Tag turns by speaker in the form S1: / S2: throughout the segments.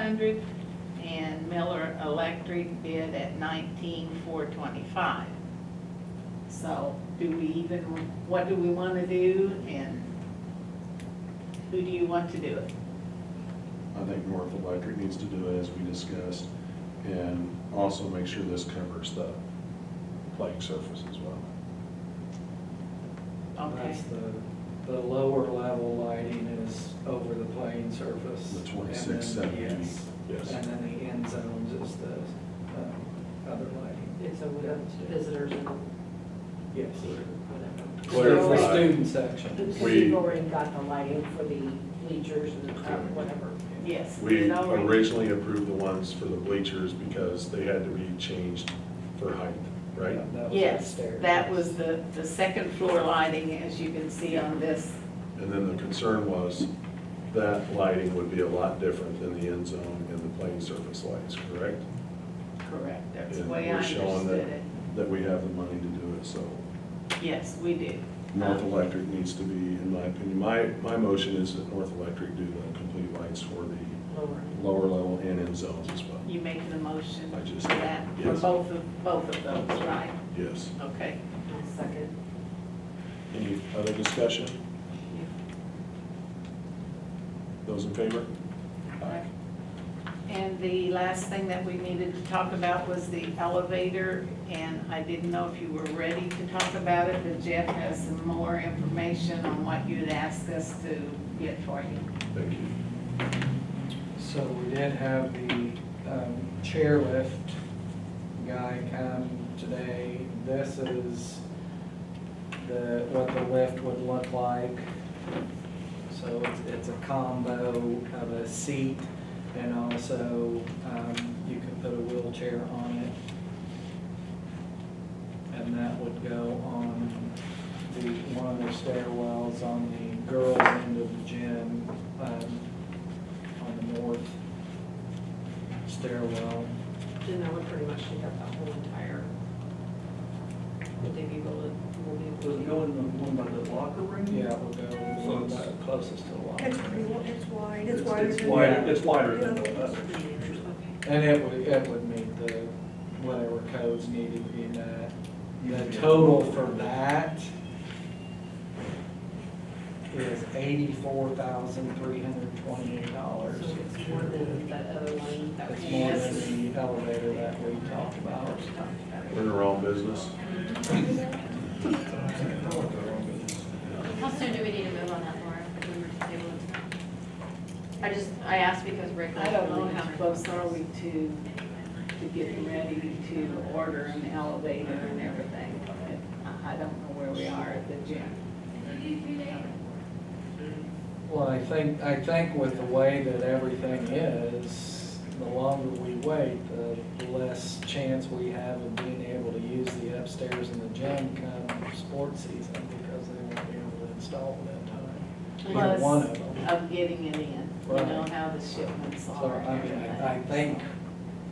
S1: hundred, and Miller Electric bid at nineteen four twenty-five. So do we even, what do we want to do and who do you want to do it?
S2: I think North Electric needs to do it as we discussed, and also make sure this covers the playing surface as well.
S1: Okay,
S3: That's the, the lower level lighting is over the playing surface.
S2: The
S3: and
S2: 26,
S3: then-
S2: 70,
S3: Yes.
S2: yes.
S3: And then the end zones is the, um, other lighting,
S4: It's a visitors and
S3: yes.
S4: whatever.
S3: The
S5: Clarify.
S3: student section.
S4: Because
S5: We-
S4: you've already got the lighting for the bleachers and uh, whatever.
S1: yes.
S5: We
S1: it already-
S5: originally approved the ones for the bleachers because they had to be changed for height, right?
S3: That was
S1: Yes,
S3: upstairs.
S1: that was the, the second floor lighting, as you can see on this.
S5: And then the concern was that lighting would be a lot different than the end zone and the playing surface lights, correct?
S1: Correct. That's the
S5: And
S1: way I
S5: we're showing
S1: understood
S5: that-
S1: it.
S5: That we have the money to do it, so
S1: Yes, we did.
S5: North
S1: Um,
S5: Electric needs to be, in my opinion, my, my motion is that North Electric do the complete lights for the
S4: Lower.
S5: lower level and end zones as well.
S1: You making a motion
S5: I just-
S1: for that, for
S5: yes.
S1: both of, both of those, right?
S5: Yes.
S1: Okay.
S4: I'll second.
S5: Any other discussion? Those in favor?
S1: And the last thing that we needed to talk about was the elevator, and I didn't know if you were ready to talk about it, but Jeff has some more information on what you'd asked us to get for you.
S5: Thank you.
S3: So we did have the um, chairlift guy come today. This is the, what the lift would look like. So it's, it's a combo of a seat and also um, you can put a wheelchair on it. And that would go on the, one of the stairwells on the girls' end of the gym. um, on the north stairwell.
S4: And that would pretty much take up the whole entire, would they be able to, will they?
S6: Does it go in the one by the locker room?
S3: Yeah, we'll go.
S6: So it's closest to the locker
S7: It's
S6: room.
S7: pretty, wa- it's wide, it's wider
S6: It's
S7: than.
S6: wider, it's wider than the
S7: Yeah.
S6: other.
S3: And it would, it would meet the, whatever codes needed to be met. The total for that is eighty-four thousand, three hundred twenty-eight
S4: So
S3: dollars.
S4: it's more than that other one that was.
S3: It's more than the elevator that we talked about.
S5: We're in the wrong business.
S8: How soon do we need to move on that, Laura? if we were to table it tonight? I just, I asked because Rick. was
S1: I don't know
S8: really
S1: how
S8: concerned.
S1: close are we to, to getting ready to order an elevator and everything, but I- I don't know where we are at the gym.
S3: Well, I think, I think with the way that everything is, the longer we wait, the less chance we have of being able to use the upstairs and the gym come sports season because they won't be able to install it that time. Either
S1: Plus-
S3: one of them.
S1: Of getting it in, you know
S3: Right.
S1: how the shipments
S3: So,
S1: are.
S3: I mean, I, I
S1: and
S3: think,
S1: everything.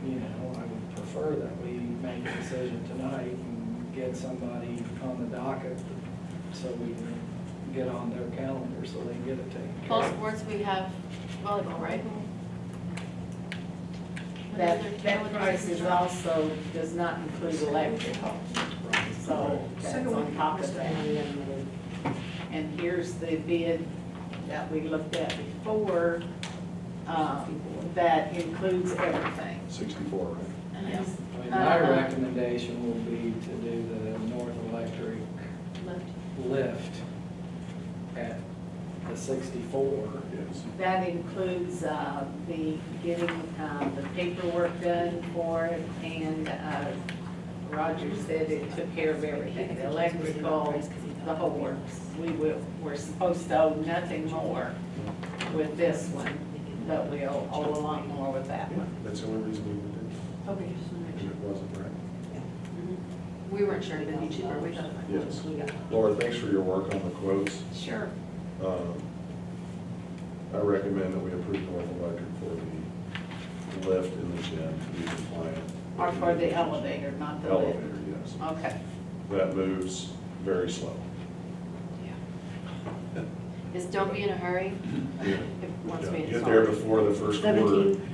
S3: you know, I would prefer that we make a decision tonight and get somebody on the docket so we can get on their calendar so they can get it taken care of.
S8: Fall sports, we have volleyball, right? What other-
S1: That,
S8: what
S1: that
S8: other
S1: price is
S8: sports?
S1: also, does not include electrical, so that's on top of that. And here's the bid that we looked at before, um, that includes everything.
S5: Sixty-four, right?
S1: Yes.
S3: I mean, my
S1: Uh-huh.
S3: recommendation will be to do the North Electric
S8: Left.
S3: lift at the sixty-four.
S5: Yes.
S1: That includes uh, the getting uh, the paperwork done for it, and uh, Roger said it took care of everything, the electrical, the whole works. We will, we're supposed to owe nothing more with this one, but we owe owe a lot more with that
S5: Yeah,
S1: one.
S5: That's the only reason we
S8: Okay, just wanna make
S5: did
S8: sure.
S5: it, and it wasn't right.
S8: We weren't sure if it'd be cheaper, we thought. it might be.
S5: Yes.
S8: We got-
S5: Laura, thanks for your work on the quotes.
S1: Sure.
S5: Um, I recommend that we approve North Electric for the lift in the gym to be compliant.
S1: Or for the elevator, not the lift.
S5: Elevator, yes.
S1: Okay.
S5: That moves very slow.
S8: Is don't be in a hurry,
S5: Yeah.
S8: if, once we
S5: Get
S8: install.
S5: there before the first quarter.
S1: Seventeen